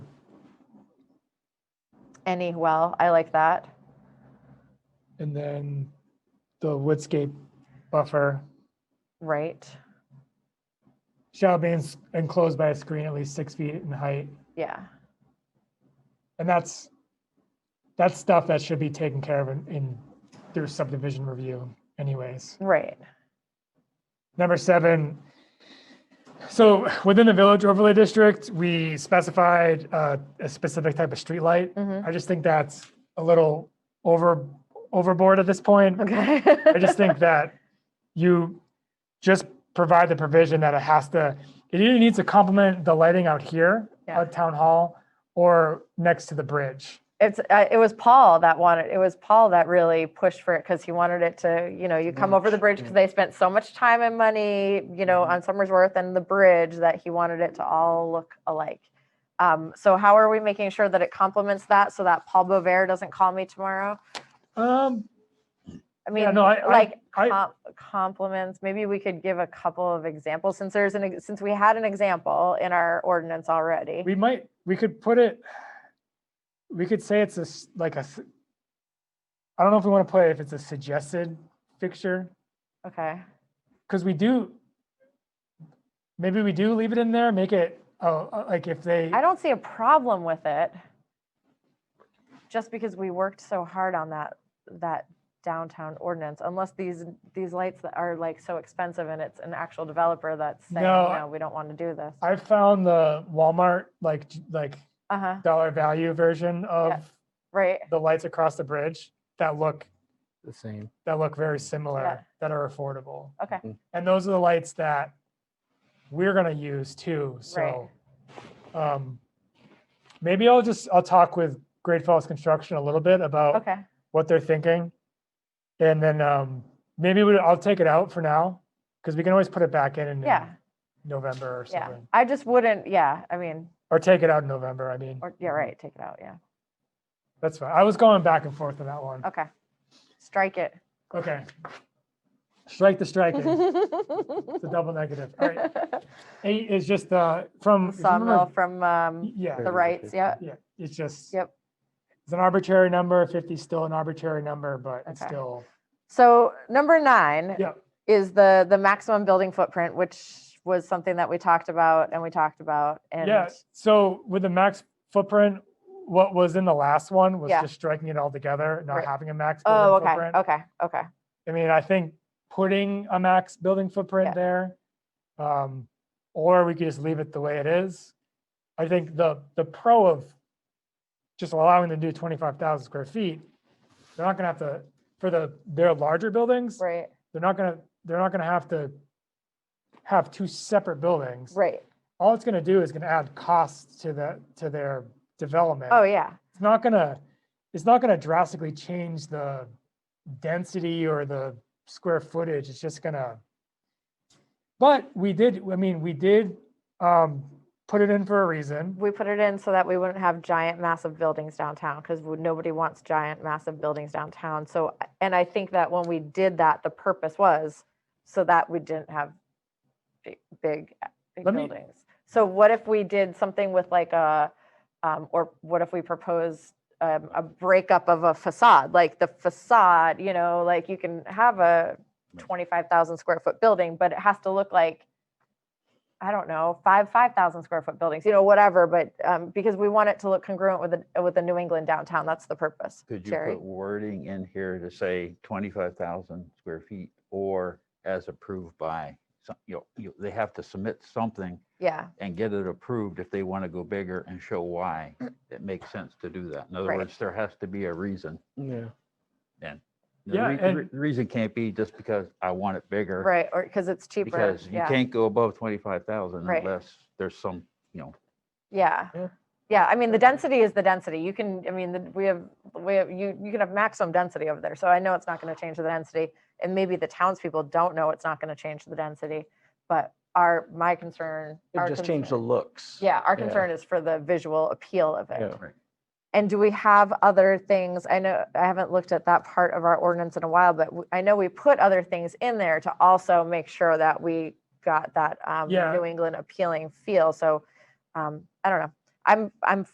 any well. I like that. And then the woodscape buffer Right. shall be ens- enclosed by a screen at least six feet in height. Yeah. And that's, that's stuff that should be taken care of in, in through subdivision review anyways. Right. Number seven. So within the village overlay district, we specified uh, a specific type of streetlight. hmm I just think that's a little over, overboard at this point. Okay. I just think that you just provide the provision that it has to, it either needs to complement the lighting out here Yeah. at town hall or next to the bridge. it's uh, it was Paul that wanted it was Paul that really pushed for it because he wanted it to you know you come over the bridge because they spent so much time and money you know Mm-hmm. on Somersworth and the bridge that he wanted it to all look alike. Um, so how are we making sure that it complements that so that Paul Bovair doesn't call me tomorrow? Um, I mean, yeah, no, I, I, like I, com- compliments. Maybe we could give a couple of examples since there's an ex- since we had an example in our ordinance already. we might, we could put it, we could say it's a, s- like a, s- I don't know if we want to put it if it's a suggested fixture, okay. because we do, maybe we do leave it in there, make it, oh, uh, like if they, I don't see a problem with it. Just because we worked so hard on that, that downtown ordinance, unless these, these lights that are like so expensive and it's an actual developer that's saying, No, I- no, we don't want to do this. I found the Walmart, like, j- like Uh-huh, dollar value version of right, the lights across the bridge that look, the same. that look very Yeah. similar, that are affordable. okay, And those are the lights that we're gonna use too, so. um, Maybe I'll just, I'll talk with Great Falls Construction a little bit about okay, what they're thinking. And then um, maybe we, I'll take it out for now, because we can always put it back in in yeah, November or yeah. something. I just wouldn't, yeah, I mean, Or take it out in November, I mean, or, yeah, right, take it out, yeah, that's fine. I was going back and forth on that one. okay. Strike it. Okay. Strike the striking. It's a double negative. All right. Eight is just uh from if you Sawmill remember- from, um, Yeah, the rights, yeah, yeah. It's just Yep. It's an arbitrary number. Fifty is still an arbitrary number, but it's Okay. still So number nine Yep. is the the maximum building footprint, which was something that we talked about and we talked about. And yeah. So with the max footprint, what was in the last one was Yeah. just striking it all together, not Right. having a max building oh, okay, footprint. okay, okay, I mean, I think putting a max building footprint there, um, or we could just leave it the way it is. I think the, the pro of just allowing them to do twenty-five thousand square feet, they're not gonna have to, for the, their larger buildings, right, they're not gonna, they're not gonna have to have two separate buildings. right. All it's gonna do is gonna add costs to the, to their development Oh yeah, it's not gonna, it's not gonna drastically change the density or the square footage, it's just gonna. But we did, I mean, we did, um, put it in for a reason, we put it in so that we wouldn't have giant, massive buildings downtown because nobody wants giant, massive buildings downtown. So, and I think that when we did that, the purpose was so that we didn't have big, big, uh, big Let me- buildings. So what if we did something with like a, um, or what if we proposed um, a breakup of a facade? Like the facade, you know, like you can have a twenty-five thousand square foot building, but it has to look like, I don't know, five, five thousand square foot buildings, you know, whatever, but, um, because we want it to look congruent with the, with the New England downtown, that's the purpose. Could you Jerry? put wording in here to say twenty-five thousand square feet or as approved by? some- You know, you, they have to submit something Yeah, and get it approved if they want to go bigger and show why it makes sense to do that. In other Right. words, there has to be a reason. Yeah. The Yeah, re- and- re- The reason can't be just because I want it bigger. right, or, because it's cheaper, Because you yeah. can't go above twenty-five thousand Right. unless there's some, you know, Yeah. Yeah. Yeah, I mean, the density is the density. You can, I mean, the- we have, we have, you, you can have maximum density over there. So I know it's not going to change the density. And maybe the townspeople don't know it's not going to change the density. But our, my concern. our It just changed the concern- looks. Yeah, our yeah. concern is for the visual appeal of it. Yeah. And do we have other things? I know, I haven't looked at that part of our ordinance in a while, but w- I know we put other things in there to also make sure that we got that um, Yeah. New England appealing feel. So um, I don't know. I'm, I'm